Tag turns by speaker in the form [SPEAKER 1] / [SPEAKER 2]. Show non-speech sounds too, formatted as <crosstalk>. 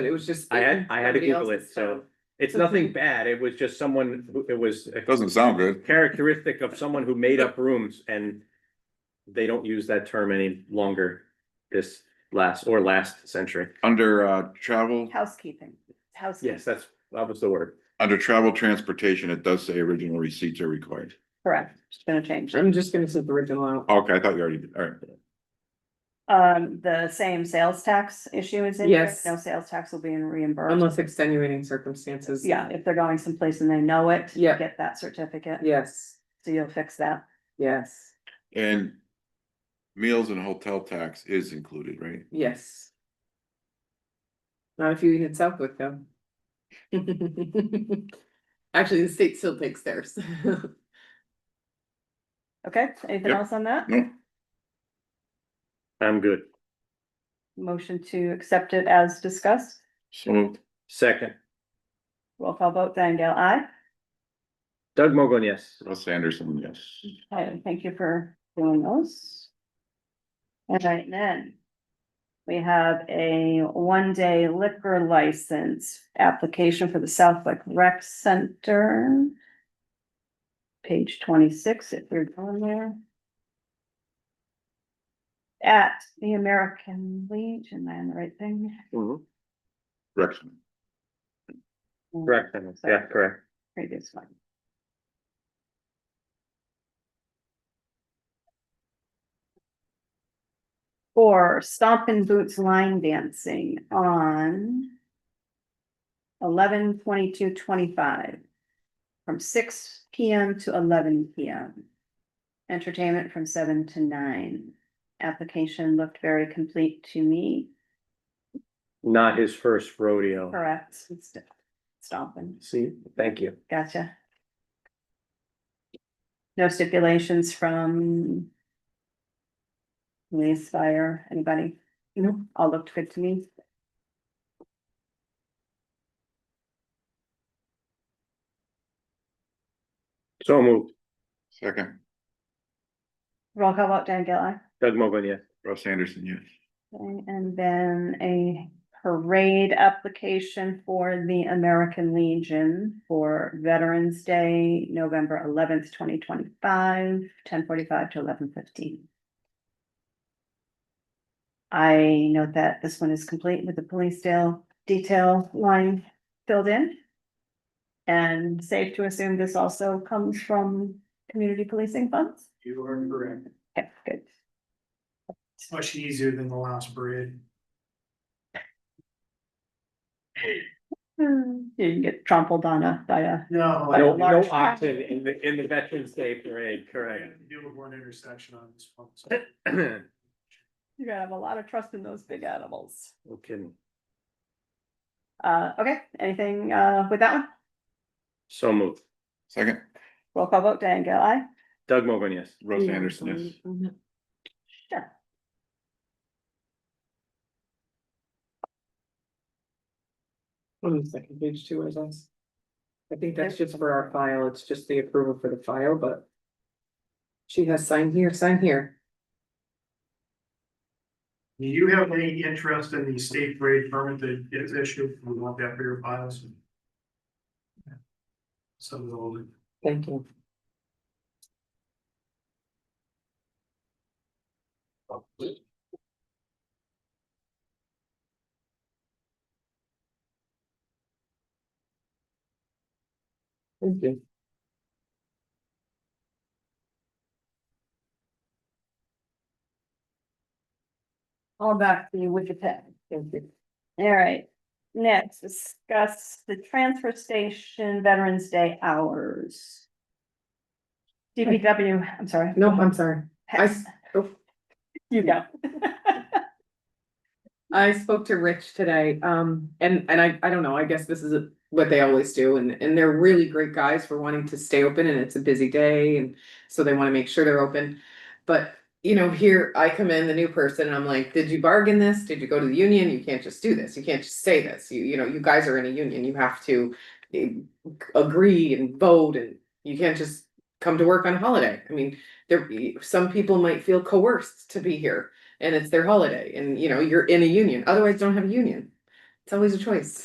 [SPEAKER 1] But it was just.
[SPEAKER 2] I had- I had to
[SPEAKER 1] somebody
[SPEAKER 2] Google
[SPEAKER 1] else's
[SPEAKER 2] it, so-
[SPEAKER 1] phone.
[SPEAKER 2] It's nothing bad. It was just someone, who- it was a
[SPEAKER 3] Doesn't sound good.
[SPEAKER 2] characteristic of someone who made up rooms and they don't use that term any longer this last or last century.
[SPEAKER 3] Under uh travel,
[SPEAKER 4] Housekeeping, housekeeping,
[SPEAKER 2] Yes, that's, that was the word.
[SPEAKER 3] under travel transportation, it does say original receipts are required.
[SPEAKER 4] correct, it's been a change.
[SPEAKER 1] I'm just gonna set the original out.
[SPEAKER 3] Okay, I thought you already, did. all right.
[SPEAKER 4] Um, the same sales tax issue is in here,
[SPEAKER 1] Yes.
[SPEAKER 4] no sales tax will be reimbursed.
[SPEAKER 1] Unless extenuating circumstances.
[SPEAKER 4] Yeah, if they're going someplace and they know it, you
[SPEAKER 1] Yeah.
[SPEAKER 4] get that certificate,
[SPEAKER 1] Yes,
[SPEAKER 4] so you'll fix that.
[SPEAKER 1] yes,
[SPEAKER 3] And meals and hotel tax is included, right?
[SPEAKER 1] yes. Not if you eat in Southwick though. <laughs> Actually, the state still takes theirs. <laughs>
[SPEAKER 4] Okay, anything
[SPEAKER 3] Yep.
[SPEAKER 4] else on that?
[SPEAKER 3] No,
[SPEAKER 2] I'm good.
[SPEAKER 4] Motion to accept it as discussed,
[SPEAKER 3] so moved.
[SPEAKER 2] Second,
[SPEAKER 4] roll call vote, Diane I.
[SPEAKER 2] Doug Mogul, yes.
[SPEAKER 3] Russ Anderson, yes.
[SPEAKER 4] Okay, thank you for doing those. All right, then. We have a one-day liquor license application for the Southwick Rec Center. Page twenty-six, if you're going there. At the American Legion, am I on the right thing?
[SPEAKER 3] Rexman.
[SPEAKER 2] Correct, yeah, correct.
[SPEAKER 4] Previous one. For Stompin' Boots line dancing on eleven twenty-two twenty-five from six P M to eleven P M. Entertainment from seven to nine. Application looked very complete to me,
[SPEAKER 2] Not his first rodeo.
[SPEAKER 4] correct? It's Stompin'.
[SPEAKER 2] See, thank you.
[SPEAKER 4] Gotcha. No stipulations from. Police, fire, anybody? No. All looked good to me.
[SPEAKER 2] So moved.
[SPEAKER 3] Second,
[SPEAKER 4] Roll call vote, Dan Gilli.
[SPEAKER 2] Doug Mogul, yes.
[SPEAKER 3] Russ Anderson, yes.
[SPEAKER 4] Okay, And then a parade application for the American Legion for Veterans Day, November eleventh, twenty twenty-five, ten forty-five to eleven fifteen. I note that this one is complete with the police detail, detail line filled in. And safe to assume this also comes from community policing funds?
[SPEAKER 5] You are correct.
[SPEAKER 4] Okay, good.
[SPEAKER 5] It's much easier than the last bridge.
[SPEAKER 4] Hmm, You didn't get trampled on a, by a
[SPEAKER 5] No. I-
[SPEAKER 2] No, no
[SPEAKER 4] large-
[SPEAKER 2] option in the, in the Veterans Day Parade,
[SPEAKER 5] I
[SPEAKER 2] correct. <clears throat>
[SPEAKER 5] have to Deal with one intersection on this one. so.
[SPEAKER 2] Okay.
[SPEAKER 4] You're gonna have a lot of trust in those big animals. Uh, okay, anything, uh, with that one?
[SPEAKER 2] So moved.
[SPEAKER 3] Second,
[SPEAKER 4] Roll call vote, Diane Gale, aye?
[SPEAKER 2] Doug Mogul, yes.
[SPEAKER 3] Russ Anderson, yes.
[SPEAKER 4] Sure.
[SPEAKER 1] On the second page too, I guess. I think that's just for our file, it's just the approval for the file, but. She has sign here, sign here.
[SPEAKER 5] Do you have any interest in the state grade permit that is issued? We want that for your files. Some of the old.
[SPEAKER 1] Thank you. Thank you.
[SPEAKER 4] All back to you with your pen.
[SPEAKER 1] Thank you.
[SPEAKER 4] All right, next, discuss the transfer station Veterans Day hours. DPW, I'm sorry.
[SPEAKER 1] No, I'm sorry. I, s- oh.
[SPEAKER 4] You go. <laughs>
[SPEAKER 1] I spoke to Rich today, um, and, and I, I don't know, I guess this is what they always do, and, and they're really great guys for wanting to stay open, and it's a busy day, and so they wanna make sure they're open. But, you know, here I come in, the new person, and I'm like, did you bargain this? Did you go to the union? You can't just do this, you can't just say this, you, you know, you guys are in a union, you have to eh, agree and vote, and you can't just come to work on holiday. I mean, there, eh, some people might feel coerced to be here, and it's their holiday and you know, you're in a union, otherwise don't have a union. always a choice.